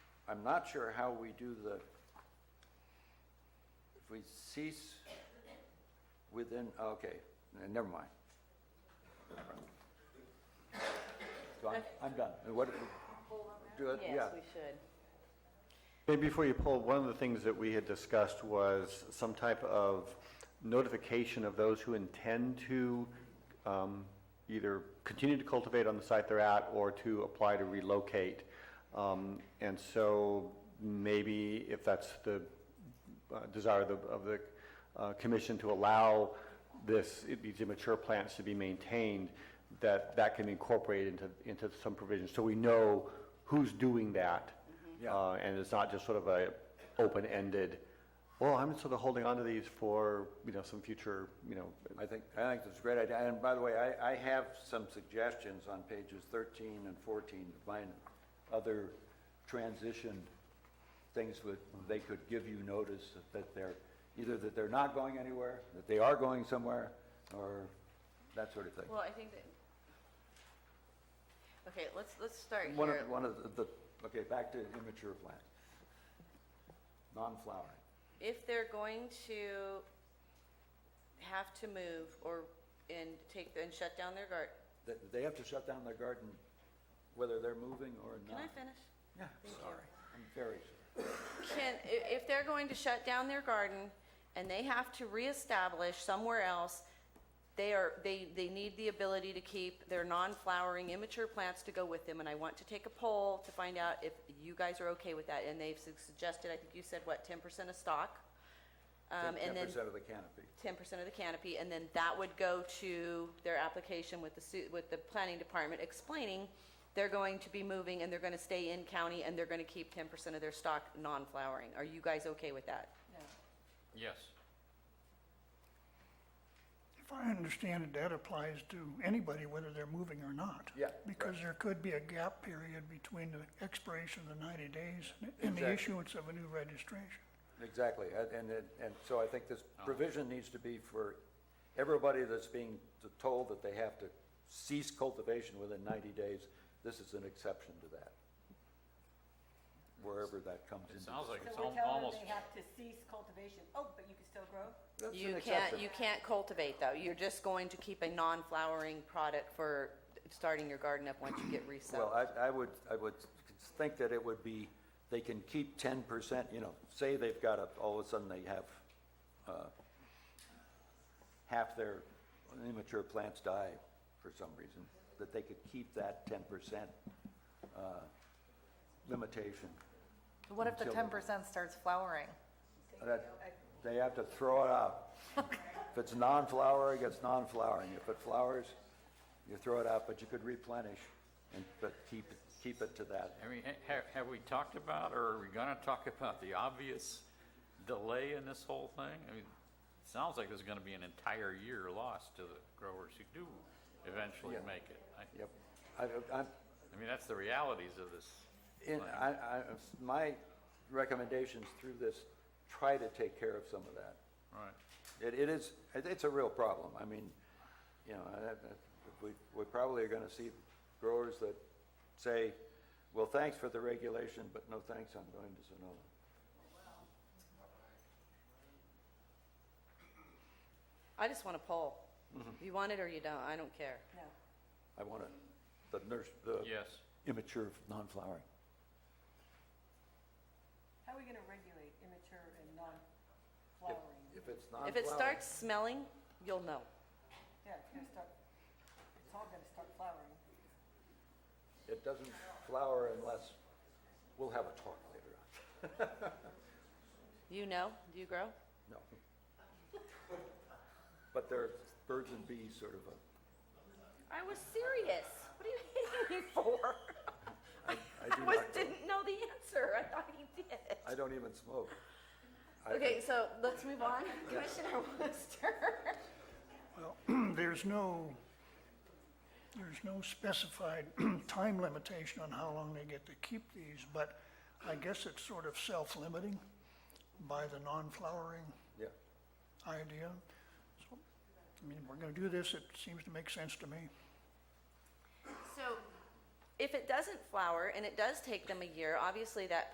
I'm not sure how we do the, if we cease within, okay, n- never mind. So I'm, I'm done. And What, do it, yeah. Yes, we should. Maybe before you pull, one of the things that we had discussed was some type of notification of those who intend to um, either continue to cultivate on the site they're at or to apply to relocate. Um, And so maybe if that's the uh, desire of the, of the uh, commission to allow this, these immature plants to be maintained, that that can be incorporated into, into some provisions, so we know who's doing that. Yeah. Uh, And it's not just sort of a open-ended, well, I'm sort of holding on to these for, you know, some future, you know, I think, I think that's a great idea. And by the way, I, I have some suggestions on pages thirteen and fourteen to find other transition things that they could give you notice that they're, either that they're not going anywhere, that they are going somewhere, or that sort of thing. Well, I think that, okay, let's, let's start One here. of, one of the, okay, back to immature plants. Non-flowering. If they're going to have to move or, and take, and shut down their garden, They, they have to shut down their garden whether they're moving or can not. I finish? Yeah, Thank you. sorry. I'm very sorry. Can, i- if they're going to shut down their garden and they have to reestablish somewhere else, they are, they, they need the ability to keep their non-flowering immature plants to go with them. And I want to take a poll to find out if you guys are okay with that. And they've su- suggested, I think you said, what, ten percent of stock? Um, Ten and then percent of the canopy. ten percent of the canopy, and then that would go to their application with the, su- with the planning department explaining they're going to be moving and they're gonna stay in county and they're gonna keep ten percent of their stock non-flowering. Are you guys okay with that? Yes. If I understand it, that applies to anybody, whether they're moving or not. Yeah, right. Because there could be a gap period between the expiration of the ninety days and the Exactly. issuance of a new registration. Exactly, and- and, it- and so I think this Oh. provision needs to be for everybody that's being t- told that they have to cease cultivation within ninety days, this is an exception to that. Wherever that comes into. It sounds like it's So we al- tell them almost, they have to cease cultivation, oh, but you can still grow? That's an You can't, exception. you can't cultivate though. You're just going to keep a non-flowering product for starting your garden up once you get Well, resettled. I, I would, I would think that it would be, they can keep ten percent, you know, say they've got a, all of a sudden they have, uh, half their immature plants die for some reason, that they could keep that ten percent, uh, limitation. What if the Until- ten percent starts flowering? That, they have to throw it out. If it's non-flowering, it's non-flowering. If it flowers, you throw it out, but you could replenish and, but keep, keep it to that. I mean, ha- ha- have we talked about, or are we gonna talk about the obvious delay in this whole thing? I mean, it sounds like there's gonna be an entire year lost to the growers who do eventually Yeah. make it. I- Yep. I, I'm, I mean, that's the realities of this. In, plan. I, I, my recommendations through this try to take care of some of that. Right. It, it is, it- it's a real problem. I mean, you know, I- I- we, we probably are gonna see growers that say, well, thanks for the regulation, but no thanks, I'm going to Sonoma. I just want a poll. mm-hmm. You want it or you don't, I don't care. No. I want to, the nurse, the Yes. immature, non-flowering. How are we gonna regulate immature and If- non-flowering? If it's non-flowering. If it starts smelling, you'll know. Yeah, it's gonna start, it's all gonna start flowering. It doesn't flower unless, we'll have a talk later on. You know, do you grow? No. But there are birds and bees sort of a. I was serious. What are you hating me for? I- I do was, not go- didn't know the answer. I thought you did. I don't even smoke. I- Okay, so let's move on. Commissioner Wooster. Well, there's no, there's no specified time limitation on how long they get to keep these, but I guess it's sort of self-limiting by the non-flowering Yeah, idea. So, I mean, if we're gonna do this, it seems to make sense to me. So if it doesn't flower and it does take them a year, obviously that